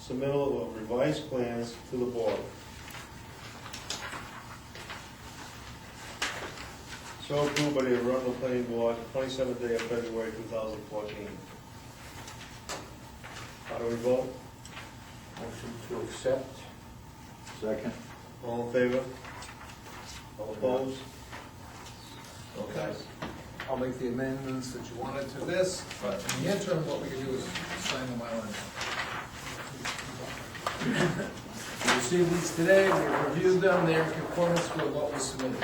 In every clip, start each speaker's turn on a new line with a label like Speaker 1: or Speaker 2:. Speaker 1: submittal of revised plans to the board. So approved by the Arundel Planning Board, twenty-seventh day of February, two thousand fourteen. How do we vote?
Speaker 2: Motion to accept.
Speaker 3: Second.
Speaker 1: All in favor? All opposed?
Speaker 4: Okay. I'll make the amendments that you wanted to this, but in the interim, what we can do is sign the Mylar. We received these today, we reviewed them, they're in conformance with what was submitted.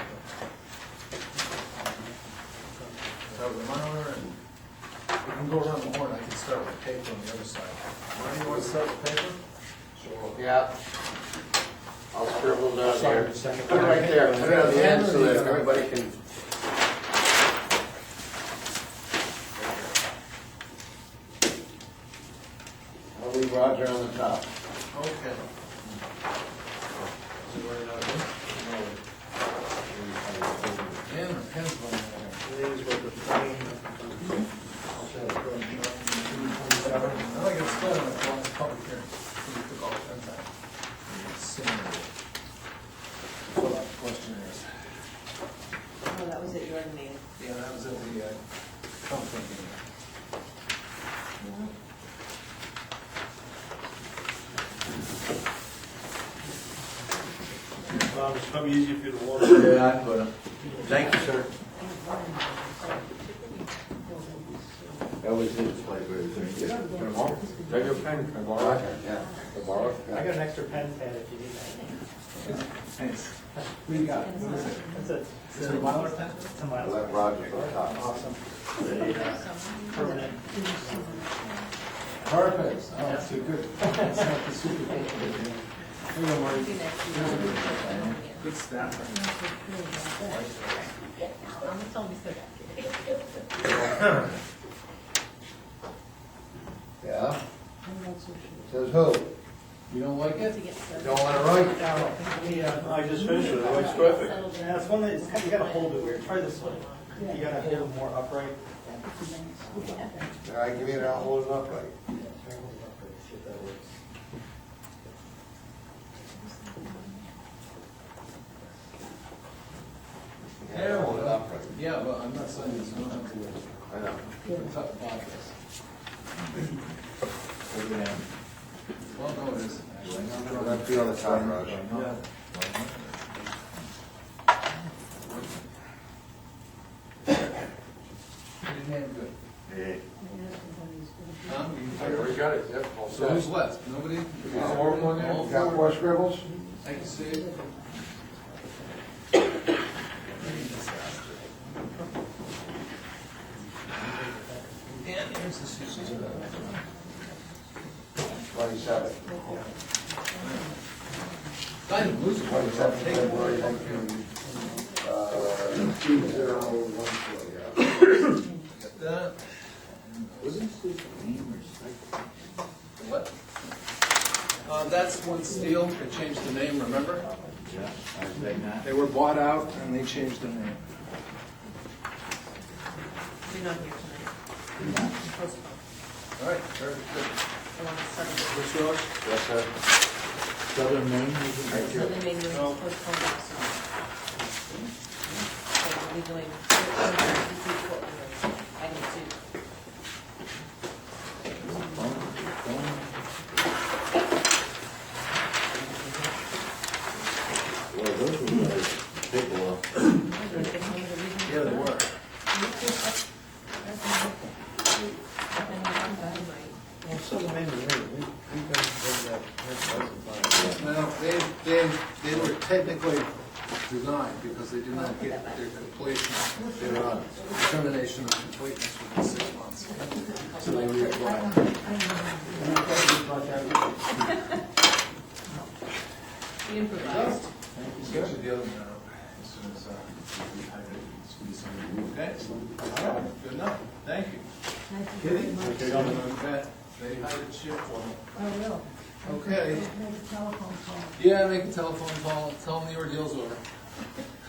Speaker 4: So the Mylar, and we can go around the horn, I can start with paper on the other side. Marty, you want to start with paper?
Speaker 3: Yeah. I'll scribble down here.
Speaker 2: Second, second.
Speaker 3: Put it right there, put it on the end so that everybody can. I'll leave Roger on the top.
Speaker 4: Okay.
Speaker 2: And the pen's going in
Speaker 1: Today's what the planning,
Speaker 4: I think it's still in the form of public hearing. We took all the pens out. Similar. Fill out the questionnaires.
Speaker 5: Oh, that was at your meeting.
Speaker 4: Yeah, that was at the uh, company meeting.
Speaker 1: Bob, it's probably easier for you to walk. All
Speaker 3: Yeah, I put him. Thank you, sir. That was his flavor. Can I borrow? Take your pen, can I borrow it? Yeah. Can I borrow it?
Speaker 2: there. I got an extra pen pad if you need that.
Speaker 4: Thanks. What do you got? What is it?
Speaker 2: That's it.
Speaker 4: Is it a Mylar pen?
Speaker 2: It's a mile.
Speaker 3: Let Roger on top.
Speaker 2: Awesome. Permanent.
Speaker 4: Perfect. Oh, that's a good. That's not the super paper. Here you go, Marty. Good staff.
Speaker 3: Yeah? Says who?
Speaker 4: You don't like it?
Speaker 3: Don't wanna write?
Speaker 2: Yeah,
Speaker 1: I just finished it, it looks perfect.
Speaker 2: it's one that, it's kind of- you gotta hold it weird. Try this one. You gotta hold it more upright.
Speaker 3: All right, give me that, I'll hold it up right.
Speaker 2: Try to hold it upright, see if that works.
Speaker 3: Yeah, hold it up right.
Speaker 4: Yeah, but I'm not saying it's not up to it.
Speaker 3: I know.
Speaker 4: It's up to Bob's.
Speaker 3: Put it down.
Speaker 4: Well, no, it isn't. actually.
Speaker 3: Put that feel on the top, Roger.
Speaker 4: Yeah. Pretty damn good.
Speaker 3: Yeah.
Speaker 4: Tom, you
Speaker 3: I already got it, yep. all
Speaker 4: So who's
Speaker 3: set.
Speaker 4: left? Nobody?
Speaker 3: Got more on there?
Speaker 4: All
Speaker 3: You Got
Speaker 4: four?
Speaker 3: more scribbles?
Speaker 4: I can see it. And here's the Susan.
Speaker 3: Twenty-seven.
Speaker 4: I didn't lose it.
Speaker 3: Twenty-seven, February, nineteen, uh, two zero one four, yeah.
Speaker 4: Got that.
Speaker 3: Wasn't this name or
Speaker 4: What? Uh, that's one steel, they changed the name, remember?
Speaker 3: Yeah, I think not.
Speaker 4: They were bought out and they changed their name.
Speaker 5: You're not here tonight. Postpone.
Speaker 4: All right, very good.
Speaker 5: I want to start.
Speaker 1: What's yours?
Speaker 3: Yes, sir. Southern Maine? Thank
Speaker 5: So
Speaker 3: you.
Speaker 5: they made me
Speaker 1: No.
Speaker 5: postpone that, so. So we'll be doing 13, 53, 14. I need to.
Speaker 3: Well, those were nice. Big uh, one.
Speaker 4: Yeah, they were.
Speaker 1: Well, Southern Maine, we, we, we got that,
Speaker 4: No, they, they, they were technically denied because they did not get their completion, their uh, determination of completeness within six months. So they reapplied.
Speaker 5: You improvised.
Speaker 4: Get you the other one out as soon as, uh, we have it, squeeze something. Okay? All right, Good enough, thank you.
Speaker 1: Okay,
Speaker 4: Some
Speaker 1: gentlemen.
Speaker 4: of that, they hired shit for me.
Speaker 6: I will.
Speaker 4: Okay,
Speaker 6: Make a telephone call.
Speaker 4: yeah, make a telephone call, tell them the ordeal's over.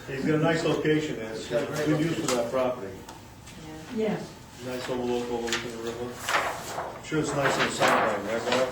Speaker 1: He's got a nice location there, it's got good use for that property.
Speaker 6: Yes.
Speaker 1: Nice little local, over the river. I'm Sure it's nice in the summertime, right, Bob?